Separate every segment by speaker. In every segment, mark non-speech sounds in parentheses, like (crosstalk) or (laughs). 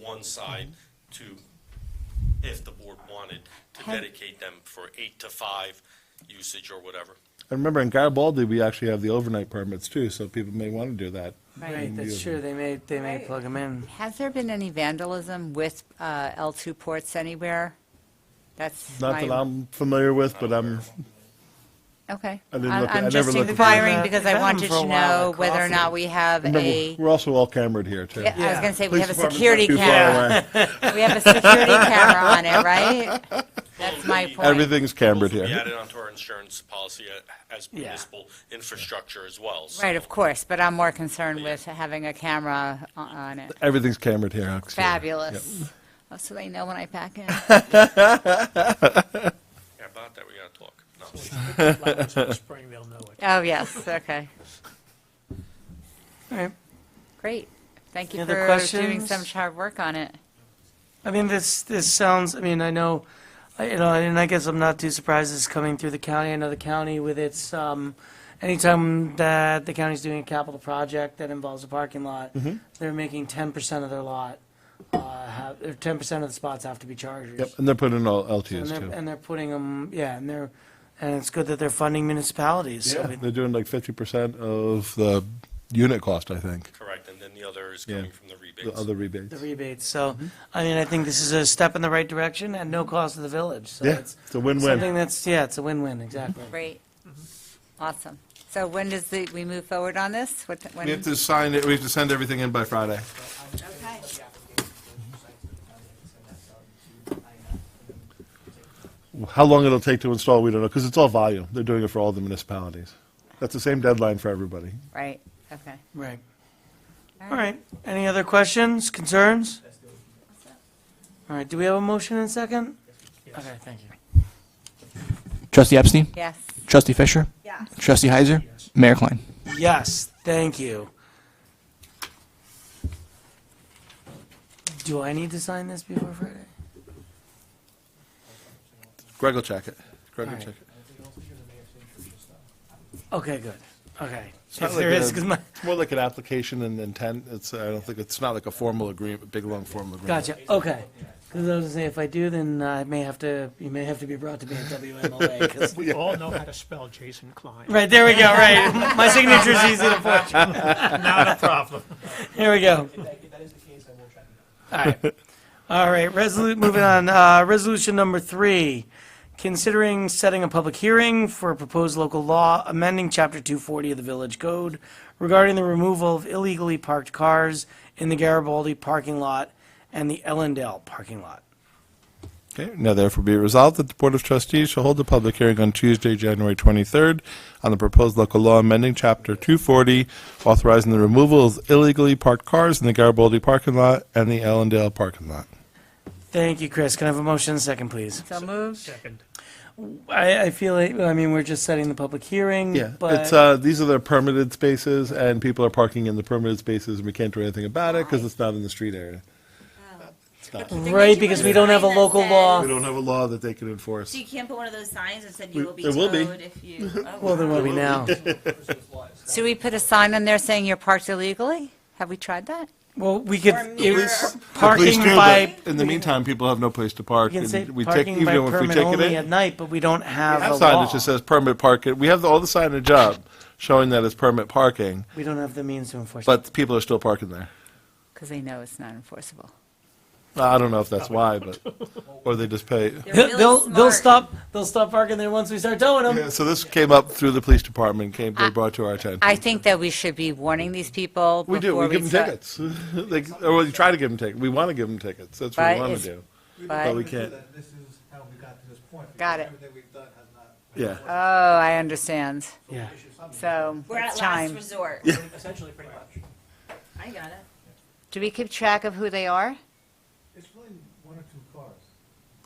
Speaker 1: one side to, if the board wanted, to
Speaker 2: Had-
Speaker 1: dedicate them for eight to five usage or whatever.
Speaker 3: And remember, in Garibaldi, we actually have the overnight permits too, so people may want to do that.
Speaker 4: Right, that's true, they may, they may
Speaker 2: Right.
Speaker 4: plug them in.
Speaker 2: Has there been any vandalism with uh, L2 ports anywhere? That's
Speaker 3: Not
Speaker 2: my-
Speaker 3: that I'm familiar with, but I'm,
Speaker 2: Okay.
Speaker 3: I didn't look- I
Speaker 2: I'm
Speaker 3: never
Speaker 2: just
Speaker 3: looked at
Speaker 2: inquiring
Speaker 3: that.
Speaker 2: because
Speaker 4: We've
Speaker 2: I
Speaker 4: had 'em
Speaker 2: wanted
Speaker 4: for a
Speaker 2: to
Speaker 4: while
Speaker 2: know
Speaker 4: at
Speaker 2: whether or not
Speaker 4: Coffee.
Speaker 2: we have
Speaker 3: remember,
Speaker 2: a,
Speaker 3: we're also all cambered here too.
Speaker 2: Yeah, I was
Speaker 4: Yeah.
Speaker 2: going to say, we have a
Speaker 3: Police department's
Speaker 2: security
Speaker 3: not too far
Speaker 2: (laughs) camera.
Speaker 3: away.
Speaker 2: We have
Speaker 3: (laughs)
Speaker 2: a security camera on it, right? That's my
Speaker 1: Well,
Speaker 2: point.
Speaker 3: Everything's cambered
Speaker 1: Those will be
Speaker 3: here.
Speaker 1: added onto our insurance policy uh, as
Speaker 4: Yeah.
Speaker 1: municipal infrastructure as well. so-
Speaker 2: Right, of course, but I'm more concerned with having a camera o- on it.
Speaker 3: Everything's cambered here. actually.
Speaker 2: Fabulous. Oh, So they know when I
Speaker 3: (laughs)
Speaker 2: pack in.
Speaker 1: Yeah, About that, we gotta talk. No.
Speaker 5: flowers in spring, they'll know it.
Speaker 2: Oh, yes, okay.
Speaker 4: All right.
Speaker 2: Great. Thank you
Speaker 4: Any other
Speaker 2: for doing
Speaker 4: questions?
Speaker 2: some hard work on it.
Speaker 4: I mean, this, this sounds, I mean, I know, I- you know, and I guess I'm not too surprised it's coming through the county. I know the county with its, um, anytime that the county's doing a capital project that involves a parking lot,
Speaker 3: Mm-hmm.
Speaker 4: they're making ten percent of their lot, uh, have, or ten percent of the spots have to be chargers.
Speaker 3: Yep, and they're putting in all
Speaker 4: And
Speaker 3: LTAs
Speaker 4: they're,
Speaker 3: too.
Speaker 4: and they're putting them, yeah, and they're, and it's good that they're funding municipalities, so.
Speaker 3: Yeah,
Speaker 4: we-
Speaker 3: They're doing like fifty percent of the unit cost, I think,
Speaker 1: Correct, and then the other is
Speaker 3: Yeah.
Speaker 1: coming from the
Speaker 3: the
Speaker 1: rebates.
Speaker 3: other rebates.
Speaker 4: the rebates. So,
Speaker 3: Mm-hmm.
Speaker 4: I mean, I think this is a step in the right direction at no cost to the village. So
Speaker 3: Yeah,
Speaker 4: it's
Speaker 3: it's a win-win. Mm-hmm.
Speaker 4: something that's, yeah, it's a win-win, exactly.
Speaker 2: Great. Awesome. So when does the, we move forward on this? What, when?
Speaker 3: We have to sign it, we have to send everything in by Friday.
Speaker 2: Okay.
Speaker 3: How long it'll take to install, we don't know, because it's all volume. They're doing it for all the municipalities. That's the same deadline for everybody.
Speaker 2: Right, okay.
Speaker 4: Right. All right. Any other questions, concerns? All right. Do we have a motion and second? Okay, thank you.
Speaker 6: Trustee Epstein?
Speaker 2: Yes.
Speaker 6: Trustee Fisher?
Speaker 2: Yes.
Speaker 6: Trustee Heiser? Mayor Klein?
Speaker 4: Yes, thank you. Do I need to sign this before Friday?
Speaker 3: Greg will check it. Greg will
Speaker 4: All right.
Speaker 3: check it.
Speaker 4: Okay, good. Okay.
Speaker 3: not
Speaker 4: If there
Speaker 3: like
Speaker 4: is,
Speaker 3: a-
Speaker 4: 'cause my-
Speaker 3: It's more like an application and intent. It's, I don't think, it's not like a formal agreement, a big, long formal agreement.
Speaker 4: Gotcha. Okay. Because I was gonna say, if I do, then I may have to. You may have to be brought to me at WMLA. 'cause-
Speaker 5: We all know how to spell Jason Klein.
Speaker 4: right there we go. Right, (laughs) my signature's easy to forge.
Speaker 5: (laughs) Not a problem.
Speaker 4: Here we go. All right. All right. Resolu- moving on. Uh, resolution number three. Considering setting a public hearing for a proposed local law amending Chapter 240 of the Village Code regarding the removal of illegally parked cars in the Garibaldi parking lot and the Ellendale parking lot.
Speaker 3: Okay, now therefore be it resolved that the Board of Trustees shall hold a public hearing on Tuesday, January 23rd on the proposed local law amending Chapter 240, authorizing the removal of illegally parked cars in the Garibaldi parking lot and the Allendale parking lot.
Speaker 4: Thank you, Chris. Can I have a motion and a second, please?
Speaker 2: So moved?
Speaker 5: Second.
Speaker 4: I, I feel like, I mean, we're just setting the public hearing,
Speaker 3: Yeah, it's,
Speaker 4: but,
Speaker 3: uh, these are the permitted spaces, and people are parking in the permitted spaces, and we can't do anything about it because it's not in the street area.
Speaker 4: right, because we don't have a local law.
Speaker 3: We don't have a law that they can enforce.
Speaker 7: So you can't put one of those signs that said
Speaker 3: We-
Speaker 7: you will be
Speaker 3: there will be.
Speaker 7: towed if
Speaker 3: (laughs)
Speaker 7: you. oh,
Speaker 4: Well, there
Speaker 7: wow.
Speaker 4: will be now.
Speaker 2: So we put a sign on there saying you're parked illegally? Have we tried that?
Speaker 4: Well, we could,
Speaker 7: Or
Speaker 4: it
Speaker 7: mirror.
Speaker 4: was
Speaker 3: Please
Speaker 4: parking
Speaker 3: do, but
Speaker 4: by,
Speaker 3: In the meantime, people have no place to park.
Speaker 4: we can
Speaker 3: and
Speaker 4: say
Speaker 3: we take-
Speaker 4: parking
Speaker 3: even
Speaker 4: by
Speaker 3: if we
Speaker 4: permit
Speaker 3: take it
Speaker 4: only
Speaker 3: in-
Speaker 4: at night, but we don't have a
Speaker 3: Have
Speaker 4: law.
Speaker 3: signage that says permit parking. We have all the signage up showing that it's permit parking,
Speaker 4: We don't have the means to enforce it.
Speaker 3: but people are still parking there.
Speaker 2: Because they know it's not enforceable.
Speaker 3: I don't know if that's why, but, or they just pay.
Speaker 7: They're really
Speaker 4: They'll, they'll
Speaker 7: smart.
Speaker 4: stop, they'll stop parking there once we start towing
Speaker 3: Yeah,
Speaker 4: them.
Speaker 3: So this came up through the police department, came, they brought to our attention.
Speaker 2: I think that we should be warning these people
Speaker 3: We do,
Speaker 2: before
Speaker 3: we
Speaker 2: we
Speaker 3: give them
Speaker 2: start-
Speaker 3: tickets. (laughs) They- Or we try to give them tickets. We want to give them tickets. That's what
Speaker 2: Right,
Speaker 3: we want
Speaker 2: it's-
Speaker 3: to do. But we
Speaker 2: But,
Speaker 3: can't,
Speaker 8: This is how we got to this point. because
Speaker 2: Got it.
Speaker 8: Everything we've done has not.
Speaker 3: yeah.
Speaker 2: oh, I understand.
Speaker 4: Yeah.
Speaker 2: So
Speaker 7: We're at
Speaker 2: it's
Speaker 7: last
Speaker 2: time.
Speaker 7: resort.
Speaker 5: Essentially, pretty much.
Speaker 7: I got it.
Speaker 2: Do we keep track of who they are?
Speaker 8: It's really one or two cars.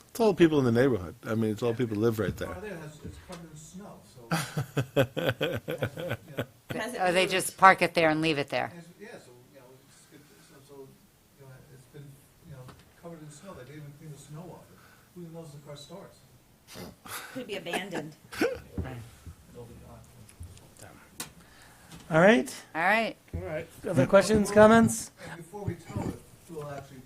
Speaker 3: It's all people in the neighborhood. I mean, it's all people live right there.
Speaker 8: Car there has, it's covered in snow, so. Has it, you know,
Speaker 7: Has it
Speaker 2: Or they
Speaker 7: moved?
Speaker 2: just park it there and leave it there?
Speaker 8: has- Yeah, so, you know, it's, it's- so, so, you know, it's been, you know, covered in snow. They didn't even clean the snow off it. Who even knows the car starts?
Speaker 7: Could be abandoned.
Speaker 4: All right.
Speaker 2: All right.
Speaker 5: All right.
Speaker 4: Other questions, comments?
Speaker 8: And before we tow it, we'll actually